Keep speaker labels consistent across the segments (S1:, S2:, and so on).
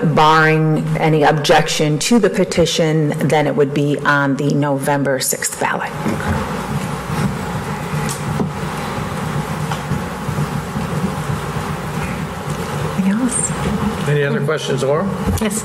S1: but barring any objection to the petition, then it would be on the November 6th ballot. Anything else?
S2: Any other questions, Laura?
S3: Yes.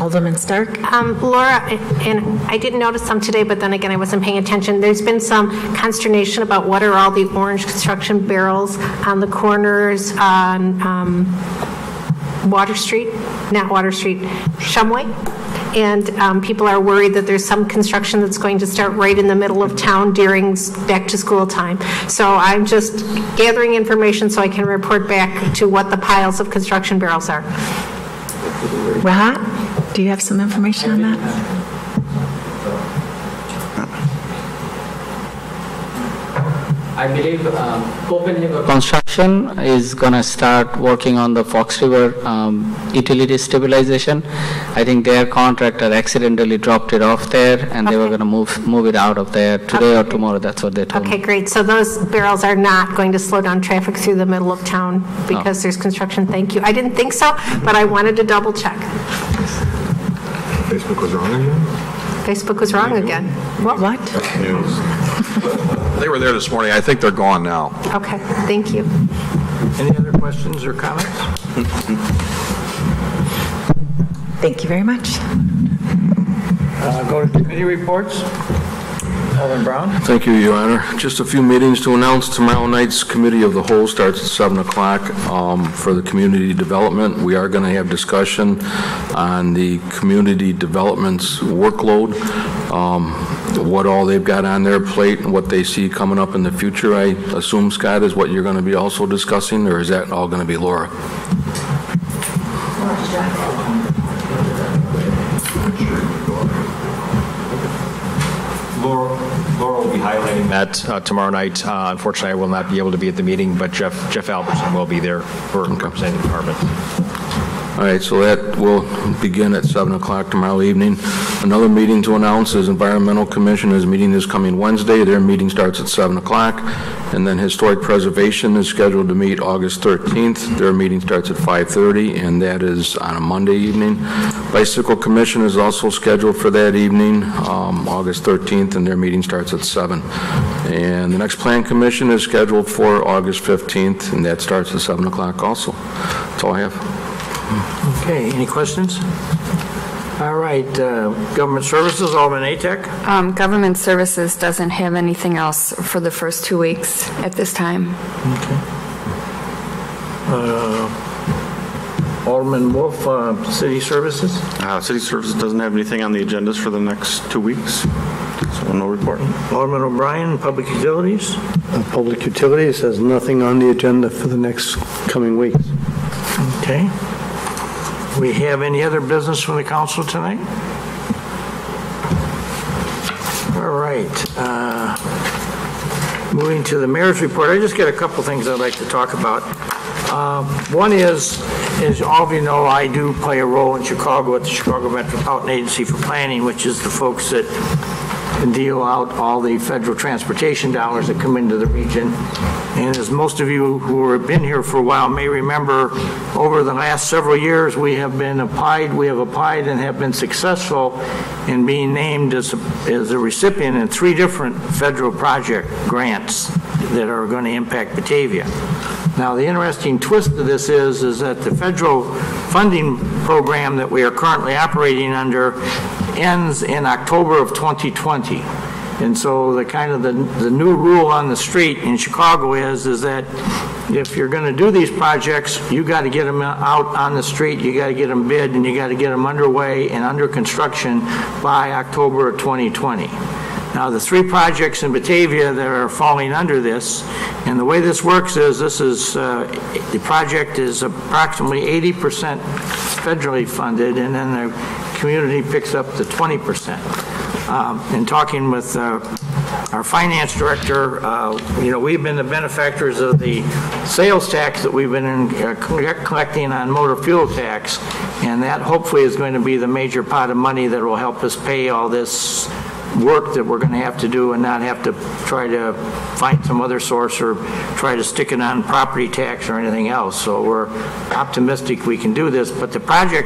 S1: Alderman Stark?
S3: Um, Laura, and I didn't notice some today, but then again, I wasn't paying attention. There's been some consternation about what are all the orange construction barrels on the corners on um, Water Street, not Water Street, Shumway. And um, people are worried that there's some construction that's going to start right in the middle of town during s- back-to-school time. So I'm just gathering information so I can report back to what the piles of construction barrels are.
S1: Rahat, do you have some information on that?
S4: I believe um, Copenhagen construction is going to start working on the Fox River um, utility stabilization. I think their contractor accidentally dropped it off there, and they were going to move, move it out of there today or tomorrow, that's what they told me.
S3: Okay, great. So those barrels are not going to slow down traffic through the middle of town because there's construction? Thank you. I didn't think so, but I wanted to double check.
S5: Facebook was wrong again?
S3: Facebook was wrong again.
S1: What?
S6: They were there this morning. I think they're gone now.
S3: Okay, thank you.
S2: Any other questions or comments?
S1: Thank you very much.
S2: Uh, Go to committee reports. Alderman Brown?
S7: Thank you, Your Honor. Just a few meetings to announce. Tomorrow night's Committee of the Whole starts at 7 o'clock um, for the community development. We are going to have discussion on the community development's workload, um, what all they've got on their plate, and what they see coming up in the future, I assume, Scott, is what you're going to be also discussing, or is that all going to be Laura?
S8: Laura Laura will be highlighting that uh, tomorrow night. Uh, Unfortunately, I will not be able to be at the meeting, but Jeff Jeff Albertson will be there for representing the department.
S7: All right, so that will begin at 7 o'clock tomorrow evening. Another meeting to announce is Environmental Commission is meeting this coming Wednesday. Their meeting starts at 7 o'clock. And then Historic Preservation is scheduled to meet August 13th. Their meeting starts at 5:30, and that is on a Monday evening. Bicycle Commission is also scheduled for that evening, um, August 13th, and their meeting starts at 7. And the next Plan Commission is scheduled for August 15th, and that starts at 7 o'clock also. That's all I have.
S2: Okay, any questions? All right, uh, government services, Alderman Atek?
S9: Um, Government Services doesn't have anything else for the first two weeks at this time.
S2: Alderman Wolf, uh, city services?
S10: Uh, City Services doesn't have anything on the agendas for the next two weeks, so no report.
S2: Alderman O'Brien, public utilities?
S11: Uh, Public Utilities has nothing on the agenda for the next coming weeks.
S2: Okay. We have any other business from the council tonight? All right. uh, Moving to the mayor's report, I just got a couple things I'd like to talk about. Uh, One is, as all of you know, I do play a role in Chicago at the Chicago Metropolitan Agency for Planning, which is the folks that deal out all the federal transportation dollars that come into the region. And as most of you who have been here for a while may remember, over the last several years, we have been applied, we have applied and have been successful in being named as, a- as a recipient in three different federal project grants that are going to impact Batavia. Now, the interesting twist of this is, is that the federal funding program that we are currently operating under ends in October of 2020. And so the kind of the, the new rule on the street in Chicago is, is that if you're going to do these projects, you got to get them out on the street, you got to get them bid, and you got to get them underway and under construction by October of 2020. Now, the three projects in Batavia that are falling under this, and the way this works is, this is, uh, the project is approximately 80% federally funded, and then the community picks up the 20%. Um, In talking with uh, our finance director, uh, you know, we've been the benefactors of the sales tax that we've been in- uh, collect- collecting on motor fuel tax, and that hopefully is going to be the major pot of money that will help us pay all this work that we're going to have to do and not have to try to find some other source or try to stick it on property tax or anything else. So we're optimistic we can do this, but the project